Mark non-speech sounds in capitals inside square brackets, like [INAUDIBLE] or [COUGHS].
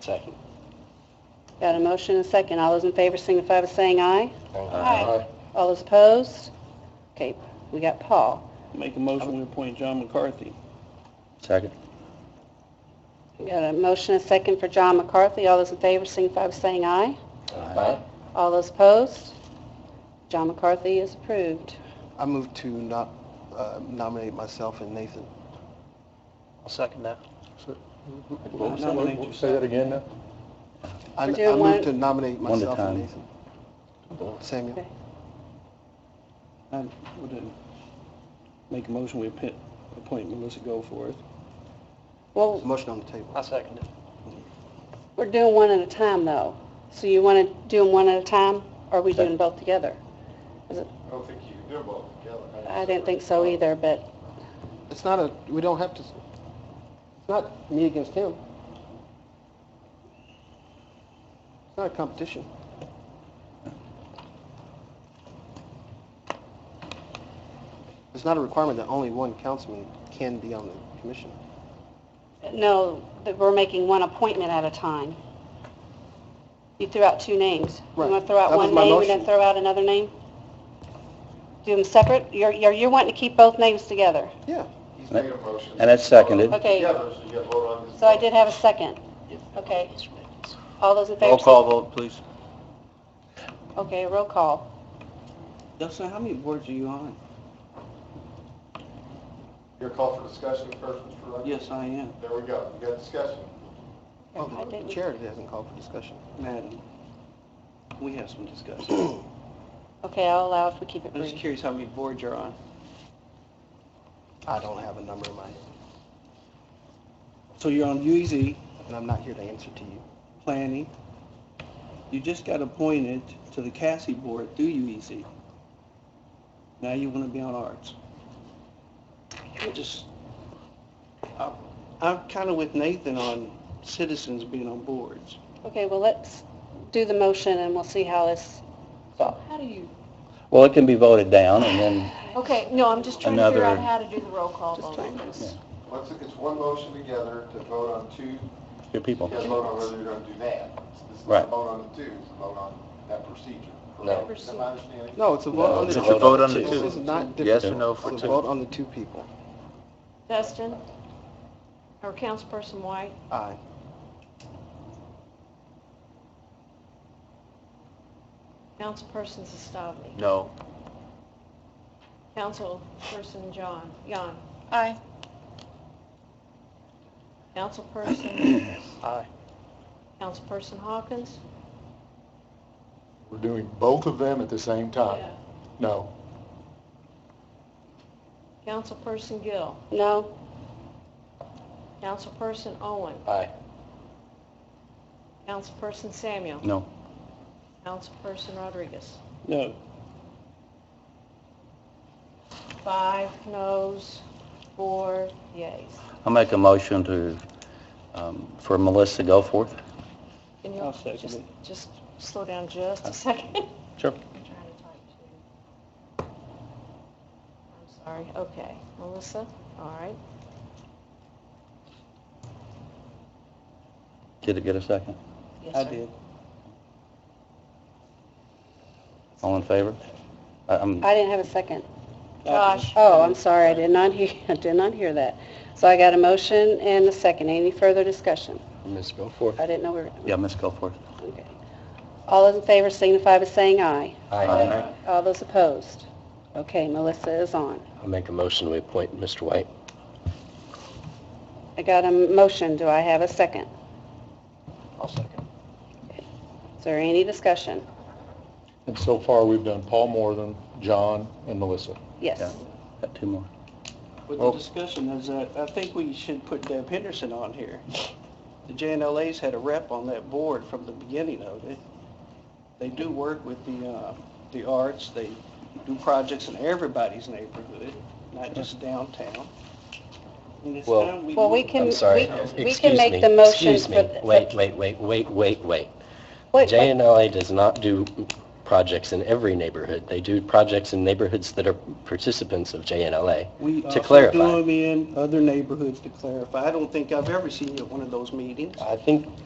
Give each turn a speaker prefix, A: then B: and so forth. A: Second.
B: Got a motion and a second. All those in favor signify by saying aye.
A: Aye.
B: All those opposed? Okay, we got Paul.
C: Make a motion, we appoint John McCarthy.
A: Second.
B: We Got a motion and a second for John McCarthy. All those in favor signify by saying aye.
A: Aye.
B: All those opposed? John McCarthy is approved.
D: I move to not uh, nominate myself and Nathan.
C: I'll second that.
A: What- what- what- Say that again now?
D: I I
B: We're doing one-
D: move to nominate
A: One at a
D: myself
A: time.
D: and Nathan. Samuel.
B: Okay.
C: I would uh, make a motion, we appoint appoint Melissa Goforth.
B: Well,
D: Motion on the table.
C: second it.
B: we're doing one at a time, though. So you want to do them one at a time, or are we doing both together?
E: I don't think you can do them both together.
B: I didn't think so either, but,
D: It's not a, we don't have to, s- it's not me against him. It's not a competition. It's not a requirement that only one councilman can be on the commission.
B: no, that we're making one appointment at a time. You threw out two names. You want
D: Right.
B: to throw out
D: That was
B: one
D: my
B: name and then
D: motion.
B: throw out another name? Do them separate? You're, you're you're wanting to keep both names together.
D: Yeah.
E: He's made a motion.
A: And that's seconded.
B: Okay.
E: Together, so you gotta vote on this.
B: So I did have a second. Okay. All those in favor?
F: Roll call vote, please.
B: Okay, roll call.
C: Dustin, how many boards are you on?
E: Your call for discussion first, Mr. Rogers?
C: Yes, I am,
E: There we go. You got discussion.
D: Well,
B: I
D: the
B: didn't-
D: Oh, chair hasn't called for discussion.
C: madam. We have some discussion.
B: Okay, I'll allow if we keep it
C: I'm just
B: brief.
C: curious how many boards you're on.
D: I don't have a number in my head,
C: So you're on UEZ,
D: and I'm not here to answer to you.
C: planning. You just got appointed to the Cassie Board through UEZ. Now you want to be on arts. I just, I- I'm kind of with Nathan on citizens being on boards.
B: Okay, well, let's do the motion and we'll see how this,
G: How do you,
A: Well, it can be voted down and then,
G: okay, no, I'm just trying to figure out
A: Another-
G: how to do the roll call
B: Just
G: vote
B: trying
G: on
B: to-
G: this.
E: Once it- it's one motion together to vote on two,
A: your
E: you
A: people.
E: gotta vote on whether you're gonna do that. This is
A: Right.
E: not vote on the two, it's a vote on that procedure.
A: No.
E: correct? Is that my understanding?
D: No, it's a vote on the
A: It's
D: two.
A: a
F: It's a vote on the
D: This is
F: two.
D: not
F: Yes
D: different.
F: or no for
D: It's a
F: two.
D: vote on the two people.
G: Dustin? Or Councilperson White?
D: Aye.
G: Councilperson Sestavny?
F: No.
G: Councilperson John, Jan?
B: Aye.
A: [COUGHS]
G: Councilperson,
D: Aye.
G: Councilperson Hawkins?
E: We're doing both of them at the same No.
G: Councilperson Gill?
B: no?
G: Councilperson Owen?
A: Aye.
G: Councilperson Samuel?
A: No.
G: Councilperson Rodriguez?
C: No,
G: Five noes, four yeas.
A: I'll make a motion to, um, for Melissa Goforth.
G: Can
C: I'll
G: you
C: second
G: just,
C: it.
G: just slow down just a second? [LAUGHS]
A: Sure.
G: I'm trying to type too. I'm sorry, okay. Melissa, all right.
A: Did it get a second?
G: Yes,
C: I
G: sir.
C: did.
A: All in favor? I- I'm,
B: I didn't have a second.
G: Josh.
B: Oh, I'm sorry, I did not hear, [LAUGHS] I did not hear that. So I got a motion and a second. Any further discussion?
A: Ms. Goforth.
B: I didn't know we were,
A: Yeah, Ms. Goforth.
B: okay. All those in favor signify by saying aye.
A: Aye.
B: All those opposed? Okay, Melissa is on.
A: I'll make a motion to appoint Mr. White.
B: I got a motion, do I have a second?
A: I'll second.
B: Is there any discussion?
H: And so far, we've done Paul Morgan, John, and Melissa.
B: Yes.
A: Got two more.
C: But the
F: Oh.
H: Well-
C: discussion is that I think we should put Deb Henderson on here. The JNLA's had a rep on that board from the beginning of it. They do work with the, uh, the arts, they do projects in everybody's neighborhood, not just downtown. And it's
F: Well-
C: time we
B: Well, we
C: move-
B: can,
F: I'm sorry.
B: we we can
F: Excuse
B: make
F: me.
B: the motion
F: Excuse me.
B: for... for-
F: Wait, wait, wait, wait, wait, wait.
B: wait, wait.
F: JNLA does not do projects in every neighborhood. They do projects in neighborhoods that are participants of JNLA.
C: We
F: to
C: also
F: clarify.
C: do them in other neighborhoods to clarify. I don't think I've ever seen you at one of those meetings.
F: I think